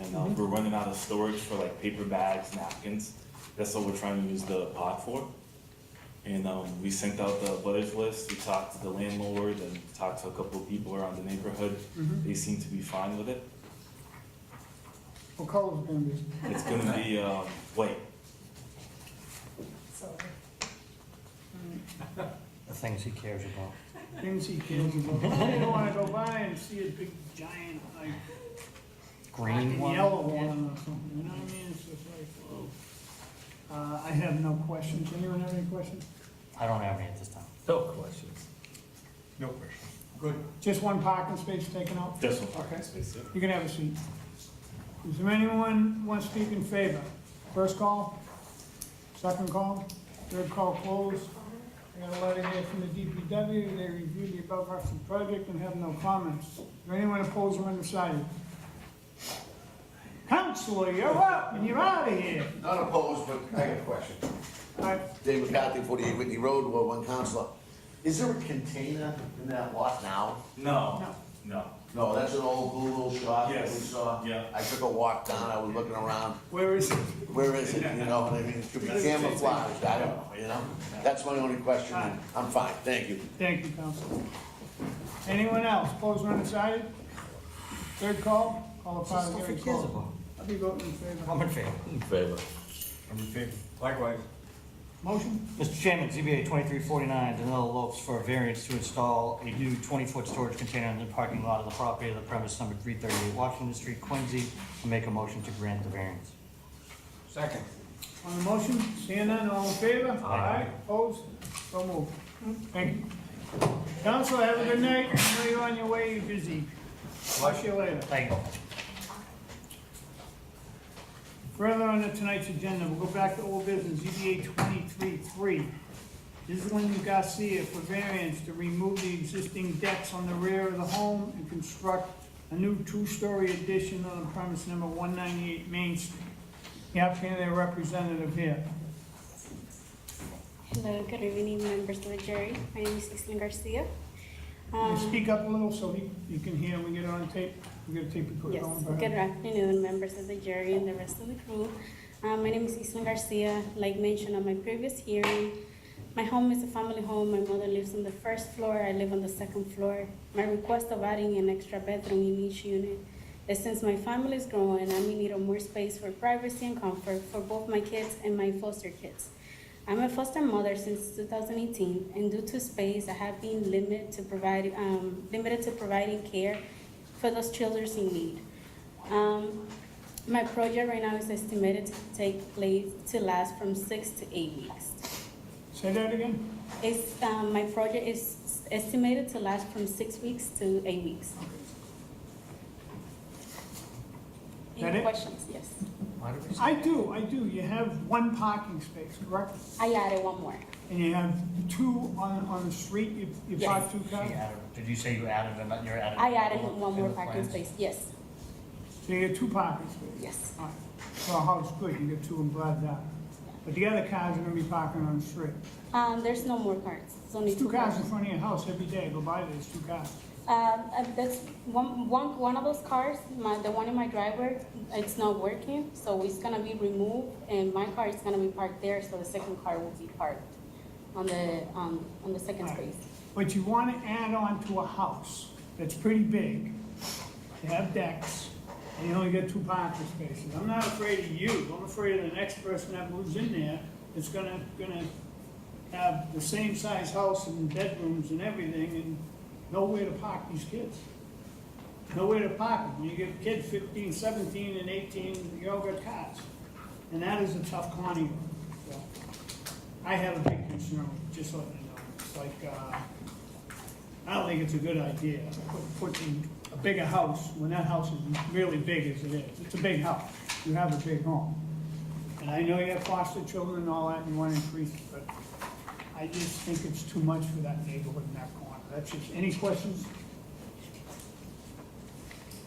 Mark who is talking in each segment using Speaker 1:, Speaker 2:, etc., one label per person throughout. Speaker 1: And um, we're running out of storage for like paper bags, napkins. That's what we're trying to use the pod for. And um, we sent out the butters list, we talked to the landlord and talked to a couple of people around the neighborhood. They seem to be fine with it.
Speaker 2: What color's it gonna be?
Speaker 1: It's gonna be, um, white.
Speaker 3: So,
Speaker 4: the things he cares about.
Speaker 2: Things he cares about. I didn't wanna go by and see a big giant, like,
Speaker 4: Green
Speaker 2: fucking
Speaker 4: one?
Speaker 2: yellow one or something, you know what I mean? It's just like, whoa. Uh, I have no questions. Anyone have any questions?
Speaker 4: I don't have any at this time.
Speaker 5: No questions.
Speaker 6: No question.
Speaker 2: Just one parking space taken out?
Speaker 1: This one.
Speaker 2: Okay. You can have a seat. Is there anyone want to speak in favor? First call, second call, third call closed. I got a letter here from the DPW, they reviewed the above referenced project and have no comments. Is there anyone opposed or undecided? Counselor, you're up, and you're out of here.
Speaker 7: Not opposed, but I got a question.
Speaker 2: All right,
Speaker 7: David McCarthy, 48 Whitney Road, Ward 1 Counselor. Is there a container in that lot now?
Speaker 1: No, no.
Speaker 7: No, that's an old blue little shop that we
Speaker 1: Yes,
Speaker 7: saw.
Speaker 1: yeah.
Speaker 7: I took a walk down, I was looking around,
Speaker 2: where is it?
Speaker 7: where is it, you know, what I mean, it could be camouflaged, I don't know, you know? That's my only question, and I'm fine, thank you.
Speaker 2: Thank you, Counselor. Anyone else, opposed or undecided? Third call, call upon the
Speaker 4: Stuff he
Speaker 2: hearing
Speaker 4: cares
Speaker 2: call.
Speaker 4: about.
Speaker 2: I'll be voting in favor.
Speaker 4: I'm in favor.
Speaker 5: In favor.
Speaker 6: I'm in favor.
Speaker 5: Likewise.
Speaker 2: Motion?
Speaker 4: Mr. Chairman, ZBA 2349, Danilo Lopes for a variance to install a new 20-foot storage container in the parking lot of the property of the premise number 338 Washington Street, Quincy. I Make a motion to grant the variance.
Speaker 5: Second.
Speaker 2: On the motion, seeing none, all in favor? Aye. Opposed? So moved. Thank you. Council, have a good night. I know you're on your way, you're busy. Watch you later.
Speaker 4: Thank you.
Speaker 2: Further on to tonight's agenda, we'll go back to old business, ZBA 23-3. This is Linda Garcia for variance to remove the existing decks on the rear of the home and construct a new two-story addition on the premise number 198 Main Street. The applicant and their representative here.
Speaker 8: Hello, good evening, members of the jury. My name is Islin Garcia.
Speaker 2: Can
Speaker 8: Um,
Speaker 2: you speak up a little so he, you can hear and we get it on tape? We get a tape recorder
Speaker 8: Yes,
Speaker 2: going. go
Speaker 8: good
Speaker 2: ahead.
Speaker 8: afternoon, members of the jury and the rest of the crew. Um, My name is Islin Garcia. Like mentioned on my previous hearing, my home is a family home. My mother lives on the first floor, I live on the second floor. My request of adding an extra bedroom in each unit is since my family is growing, I'm in need of more space for privacy and comfort for both my kids and my foster kids. I'm a foster mother since 2018, and due to space, I have been limited to provide um, limited to providing care for those children in need. Um, my project right now is estimated to take place to last from six to eight weeks.
Speaker 2: Say that again?
Speaker 8: It's, um, my project is estimated to last from six weeks to eight weeks.
Speaker 2: That
Speaker 8: Any
Speaker 2: it?
Speaker 8: questions? Yes.
Speaker 4: Why did we say-
Speaker 2: I do, I do. You have one parking space, correct?
Speaker 8: I added one more.
Speaker 2: And you have two on, on the street, you, you
Speaker 8: Yes.
Speaker 2: park two cars?
Speaker 4: She added- Did you say you added them, you're adding?
Speaker 8: I added one more
Speaker 4: in the
Speaker 8: parking
Speaker 4: plans?
Speaker 8: space. Yes,
Speaker 2: So you get two parking spaces?
Speaker 8: yes.
Speaker 2: All right. So a house, good, you get two, I'm glad of that. But the other cars are gonna be parking on the street.
Speaker 8: Um, there's no more cards. It's only
Speaker 2: There's two cars in
Speaker 8: cards.
Speaker 2: front of your house every day, go by, there's two cars.
Speaker 8: Um, uh, that's one, one, one of those cars, my, the one in my driver, it's not working, so it's gonna be removed, and my car is gonna be parked there, so the second car will be parked on the, um, on the second
Speaker 2: Right.
Speaker 8: space.
Speaker 2: But you wanna add on to a house that's pretty big, you have decks, and you only get two parking spaces. I'm not afraid of you, I'm afraid of the next person that moves in there, that's gonna, gonna have the same size house and bedrooms and everything, and nowhere to park these kids. Nowhere to park them, when you get kids 15, 17, and eighteen, you all got cars. And that is a tough county, so. I have a big concern, just letting you know, it's like, uh, I don't think it's a good idea, put- putting a bigger house, when that house is really big as it is, it's a big house, you have a big home. And I know you have foster children and all that, and you want to increase it, but I just think it's too much for that neighborhood in that corner, that's just, any questions?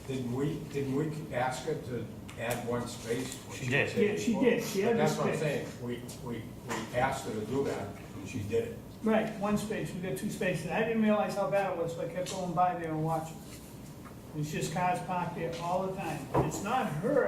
Speaker 5: Didn't we, didn't we ask her to add one space? when
Speaker 4: She did.
Speaker 5: was here
Speaker 2: Yeah, she
Speaker 5: before?
Speaker 2: did. She
Speaker 5: But
Speaker 2: added
Speaker 5: That's what I'm
Speaker 2: space.
Speaker 5: saying, we, we, we asked her to do that, and she did it.
Speaker 2: Right, one space, we got two spaces, I didn't realize how bad it was, so I kept going by there and watching. It's just cars parked there all the time, it's not her